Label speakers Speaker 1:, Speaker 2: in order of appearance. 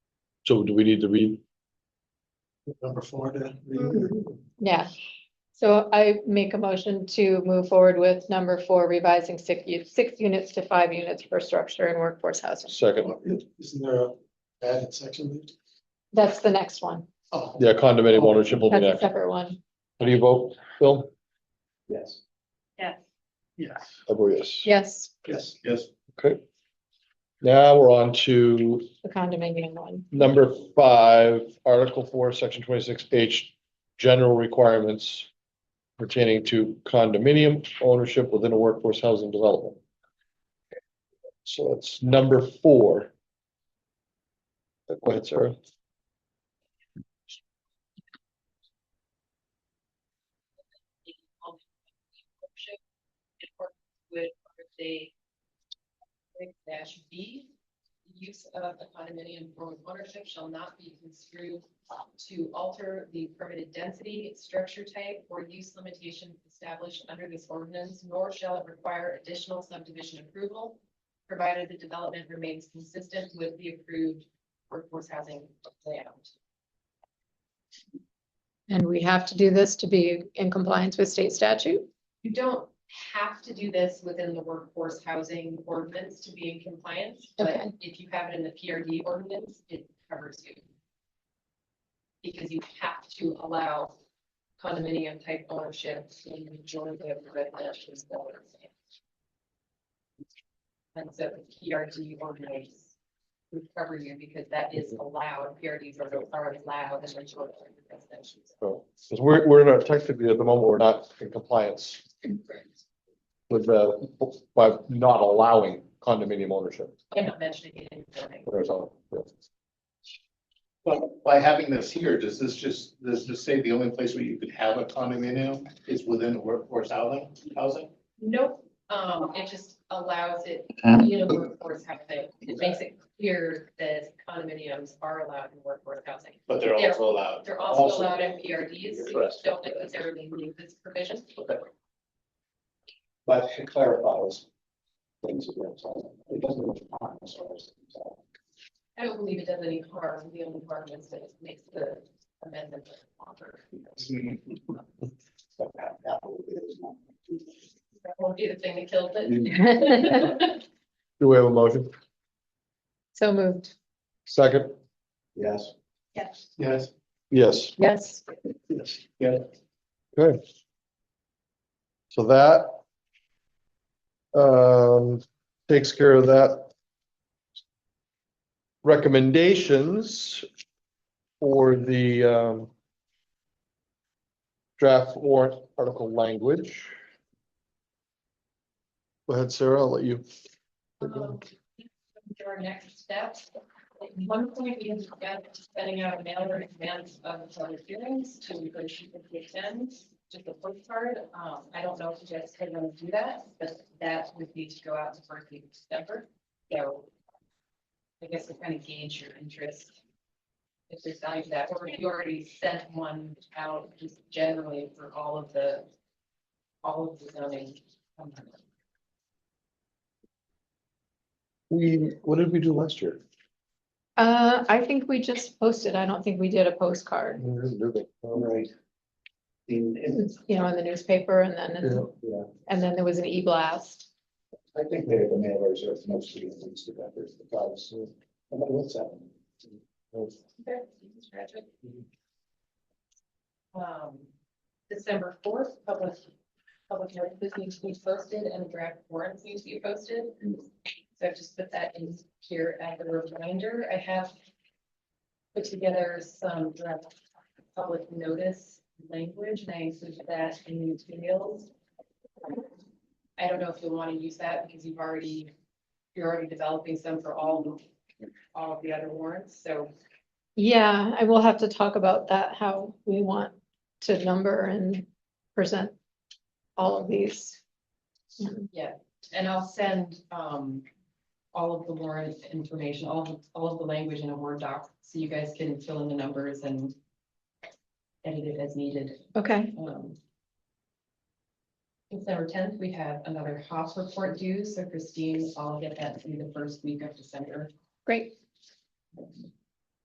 Speaker 1: So do we need to read?
Speaker 2: Number four to.
Speaker 3: Yeah, so I make a motion to move forward with number four, revising six, u- six units to five units per structure in workforce housing.
Speaker 1: Second,
Speaker 2: Isn't there a added section? there?
Speaker 3: That's the next one.
Speaker 2: Oh,
Speaker 1: yeah, condominium ownership will be
Speaker 3: That's a
Speaker 1: next.
Speaker 3: separate one.
Speaker 1: How do you vote, Phil?
Speaker 2: yes.
Speaker 3: Yes.
Speaker 2: Yes.
Speaker 1: I vote yes.
Speaker 3: Yes,
Speaker 2: Yes. Yes.
Speaker 1: Okay. Now we're on to
Speaker 3: the condominium one.
Speaker 1: number five, Article four, Section twenty-six H, general requirements pertaining to condominium ownership within a workforce housing development. So that's number four. Uh, Go ahead, Sarah.
Speaker 4: ownership. It works with part of the six dash B, The use of the condominium form of ownership shall not be construed to alter the permitted density, structure type, or use limitations established under this ordinance, nor shall it require additional subdivision approval, provided the development remains consistent with the approved workforce housing layout.
Speaker 3: And we have to do this to be in compliance with state statute?
Speaker 4: You don't have to do this within the workforce housing ordinance to be in compliance, but
Speaker 3: Okay.
Speaker 4: if you have it in the PRD ordinance, it covers you. Because you have to allow condominium type ownership in the majority of the residential developments. And so the PRD ordinance would cover you because that is allowed, PRDs are are allowed in the majority of the residential.
Speaker 1: So, 'cause we're, we're not technically at the moment, we're not in compliance
Speaker 4: developments.
Speaker 1: with the, by not allowing condominium ownership.
Speaker 4: I'm not mentioning it in zoning.
Speaker 1: There's all-
Speaker 5: But by having this here, does this just, does this say the only place where you could have a condominium is within workforce housing, housing?
Speaker 4: Nope, um, it just allows it, you know, workforce housing, it makes it clear that condominiums are allowed in workforce housing.
Speaker 5: But they're
Speaker 4: They're-
Speaker 5: also allowed.
Speaker 4: They're also allowed in PRDs, so you
Speaker 5: Correct.
Speaker 4: don't necessarily need this provision.
Speaker 5: But it clarifies things. It doesn't.
Speaker 4: I don't believe it does any harm, the only harm is that it makes the amendment longer.
Speaker 5: Mm-hmm.
Speaker 2: Mm-hmm.
Speaker 4: That won't be the thing that kills it.
Speaker 1: Do we have a motion?
Speaker 3: So moved.
Speaker 1: Second?
Speaker 5: Yes.
Speaker 4: Yes.
Speaker 5: Yes.
Speaker 1: Yes.
Speaker 3: Yes,
Speaker 5: Yeah.
Speaker 1: Okay. So that um, takes care of that. Recommendations for the um, draft warrant article language. Go ahead, Sarah, I'll let you.
Speaker 4: Um, to Our next steps, at one point, we had discussed sending out a mailer in advance of public hearings to encourage people to attend. Just a postcard, um, I don't know if you guys could want to do that, but that would need to go out the first week of December, so. I guess to kind of gauge your interest. If there's value to that, or if you already sent one out just generally for all of the. All of the zoning.
Speaker 1: We, what did we do last year?
Speaker 3: uh, I think we just posted. I don't think we did a postcard,
Speaker 1: We didn't do that.
Speaker 2: All right.
Speaker 3: you know, in the newspaper and then,
Speaker 5: Yeah.
Speaker 3: and then there was an e-blast.
Speaker 5: I think they're the mailers are mostly the things to that, there's the price. Nobody wants that.
Speaker 4: Okay, you can scratch it. Um, December fourth, public, public notices need to be posted and draft warrants need to be posted. So I've just put that in here as a reminder. I have put together some draft public notice language and I included that in the materials. I don't know if you'll want to use that because you've already, you're already developing some for all, all of the other warrants, so
Speaker 3: Yeah, I will have to talk about that, how we want to number and present all of these. Um,
Speaker 4: Yeah, and I'll send, um, all of the warrant information, all, of- all of the language in a Word doc, so you guys can fill in the numbers and edit it as needed.
Speaker 3: Okay,
Speaker 4: Um, December tenth, we have another HOF report due, so Christine, I'll get that through the first week of December.
Speaker 3: great.